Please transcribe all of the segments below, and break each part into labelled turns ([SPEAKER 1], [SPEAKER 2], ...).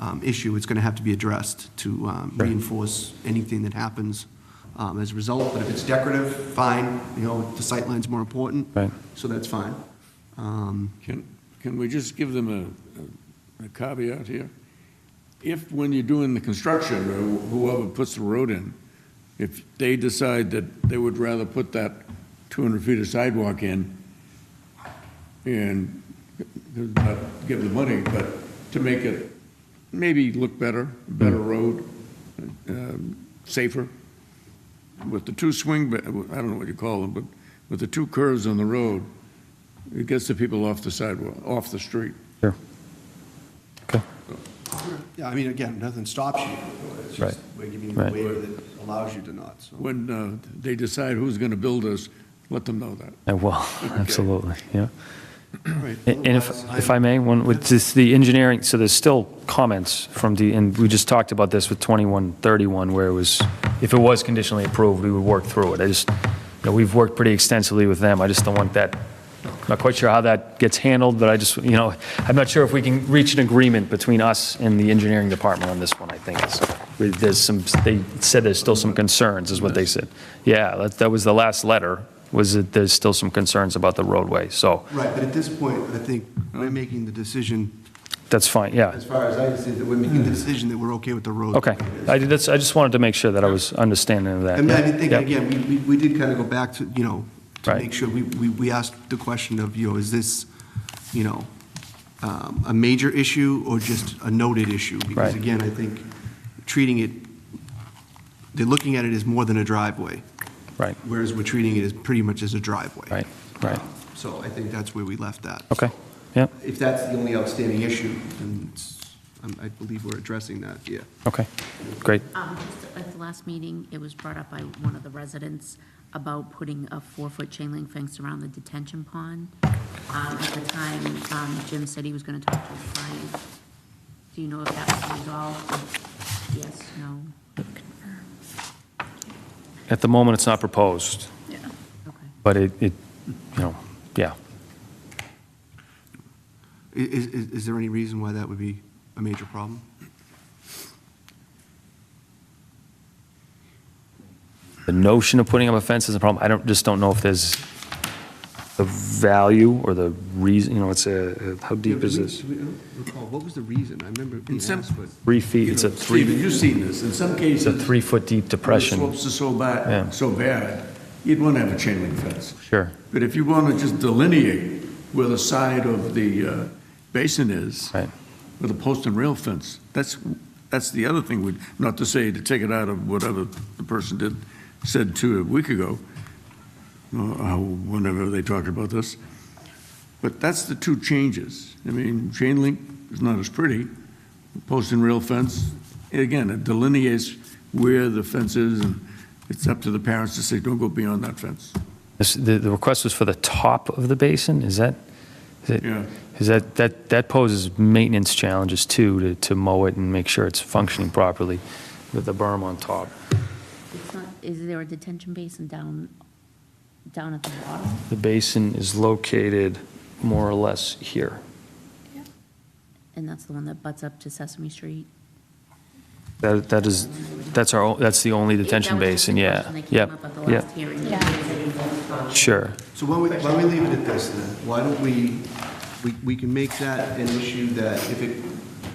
[SPEAKER 1] um, issue, it's going to have to be addressed to um,
[SPEAKER 2] Sure.
[SPEAKER 1] reinforce anything that happens um, as a result. But if it's decorative, fine, you know, the sightline's more important.
[SPEAKER 2] Right.
[SPEAKER 1] So that's fine. Um,
[SPEAKER 3] Can, can we just give them a- a, a caveat here? If, when you're doing the construction, or whoever puts the road in, if they decide that they would rather put that 200 feet of sidewalk in and not give the money, but to make it maybe look better, better road, um, safer, with the two swing, ba- I don't know what you call them, but with the two curves on the road, it gets the people off the sidewalk, off the street.
[SPEAKER 2] Sure. Okay.
[SPEAKER 1] Yeah, I mean, again, nothing stops you. It's just
[SPEAKER 2] Right.
[SPEAKER 1] We're giving you a
[SPEAKER 2] Right.
[SPEAKER 1] waiver that allows you to not, so.
[SPEAKER 3] When uh, they decide who's going to build us, let them know that.
[SPEAKER 2] Uh, Well, absolutely, yeah.
[SPEAKER 1] Right.
[SPEAKER 2] And and if, if I may, one, with this, the engineering, so there's still comments from the, and we just talked about this with 2131, where it was, if it was conditionally approved, we would work through it. I just, you know, we've worked pretty extensively with them, I just don't want that, not quite sure how that gets handled, but I just, you know, I'm not sure if we can reach an agreement between us and the engineering department on this one, I think. is- There's some, they said there's still some concerns, is what they said. Yeah, that, that was the last letter, was that there's still some concerns about the roadway, so
[SPEAKER 1] Right, but at this point, I think we're making the decision,
[SPEAKER 2] that's fine, yeah.
[SPEAKER 1] as far as I see, that we're making the decision that we're okay with the road.
[SPEAKER 2] Hmm. Okay, I did, that's, I just wanted to make sure that I was understanding of that.
[SPEAKER 1] I mean, I did think,
[SPEAKER 2] Yeah.
[SPEAKER 1] again, we, we- we did kind of go back to, you know, to
[SPEAKER 2] Right.
[SPEAKER 1] make sure, we, we, we asked the question of, you know, is this, you know, um, a major issue or just a noted issue? Because
[SPEAKER 2] Right.
[SPEAKER 1] again, I think treating it, they're looking at it as more than a driveway,
[SPEAKER 2] Right,
[SPEAKER 1] whereas we're treating it as pretty much as a driveway. Um,
[SPEAKER 2] right, right,
[SPEAKER 1] So I think that's where we left that.
[SPEAKER 2] okay, yeah,
[SPEAKER 1] If that's the only outstanding issue, then it's- um, I believe we're addressing that, yeah.
[SPEAKER 2] okay, great,
[SPEAKER 4] Um, just At the last meeting, it was brought up by one of the residents about putting a four-foot chain link fence around the detention pond. Um, At the time, um, Jim said he was going to talk to his client. Do you know if that was resolved? Yes, no?
[SPEAKER 2] at the moment, it's not proposed,
[SPEAKER 4] Yeah. Okay.
[SPEAKER 2] but it, it, you know, yeah,
[SPEAKER 1] I- Is, is is there any reason why that would be a major problem?
[SPEAKER 2] the notion of putting up a fence is a problem, I don't, just don't know if there's the value or the reason, you know, it's a, how
[SPEAKER 1] Yeah,
[SPEAKER 2] deep
[SPEAKER 1] but
[SPEAKER 2] is
[SPEAKER 1] we-
[SPEAKER 2] this?
[SPEAKER 1] we don't Recall, what was the reason? I remember being
[SPEAKER 3] In some-
[SPEAKER 1] asked, but.
[SPEAKER 2] Three feet, it's a
[SPEAKER 3] Stephen,
[SPEAKER 2] three,
[SPEAKER 3] you've seen this, in some
[SPEAKER 2] it's a
[SPEAKER 3] cases.
[SPEAKER 2] three-foot deep
[SPEAKER 3] The
[SPEAKER 2] depression,
[SPEAKER 3] slopes are so
[SPEAKER 2] Yeah.
[SPEAKER 3] bad, so bad, you'd want to have a chain link fence.
[SPEAKER 2] sure,
[SPEAKER 3] But if you want to just delineate where the side of the uh, basin is,
[SPEAKER 2] right,
[SPEAKER 3] with a post and rail fence, that's, that's the other thing, we not to say to take it out of whatever the person did, said to a week ago, or how- whenever they talked about this. But that's the two changes. I mean, chain link is not as pretty, post and rail fence, again, it delineates where the fence is, and it's up to the parents to say, don't go beyond that fence.
[SPEAKER 2] This- The, the request was for the top of the basin, is that, is it?
[SPEAKER 3] Yeah.
[SPEAKER 2] Is that, that, that poses maintenance challenges too, to, to mow it and make sure it's functioning properly with the berm on top.
[SPEAKER 4] It's not, is there a detention basin down, down at the bottom?
[SPEAKER 2] The basin is located more or less here.
[SPEAKER 4] And that's the one that butts up to Sesame Street?
[SPEAKER 2] That, that is, that's our, o- that's the only detention
[SPEAKER 4] That was just the
[SPEAKER 2] basin, yeah.
[SPEAKER 4] question that came
[SPEAKER 2] Yep,
[SPEAKER 4] up at the
[SPEAKER 2] yep,
[SPEAKER 4] last hearing.
[SPEAKER 2] sure.
[SPEAKER 1] So why don't we, why don't we leave it at this then? Why don't we, we, we can make that an issue that if it,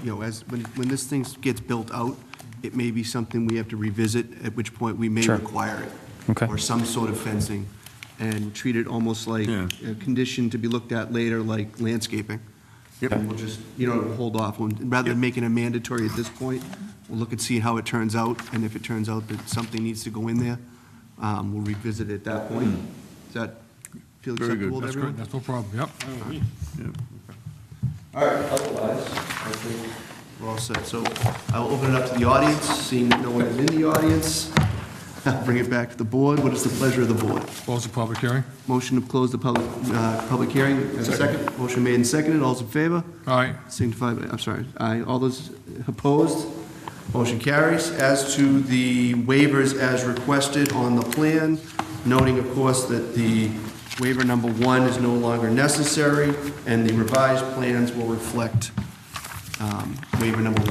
[SPEAKER 1] you know, as, when, when this thing gets built out, it may be something we have to revisit, at which point we may
[SPEAKER 2] Sure.
[SPEAKER 1] require it.
[SPEAKER 2] Okay.
[SPEAKER 1] Or some sort of fencing, and treat it almost like
[SPEAKER 3] Yeah.
[SPEAKER 1] a condition to be looked at later, like landscaping. And we'll just, you know, hold off, on- rather than making it mandatory at this point, we'll look and see how it turns out, and if it turns out that something needs to go in there, um, we'll revisit it at that point. Does that feel
[SPEAKER 3] Very good.
[SPEAKER 1] acceptable to
[SPEAKER 3] That's
[SPEAKER 1] everyone?
[SPEAKER 5] That's no problem, yep.
[SPEAKER 1] All right, otherwise, I think we're all set. So I will open it up to the audience, seeing that no one is in the audience. I'll Bring it back to the board. What is the pleasure of the board?
[SPEAKER 5] Close the public hearing.
[SPEAKER 1] Motion to close the public, uh, public hearing. Have a second. Motion made and seconded. All's in favor?
[SPEAKER 5] All right,
[SPEAKER 1] Signify by, I'm sorry, aye. All those opposed? Motion carries. As to the waivers as requested on the plan, noting, of course, that the waiver number one is no longer necessary, and the revised plans will reflect um, waiver number one.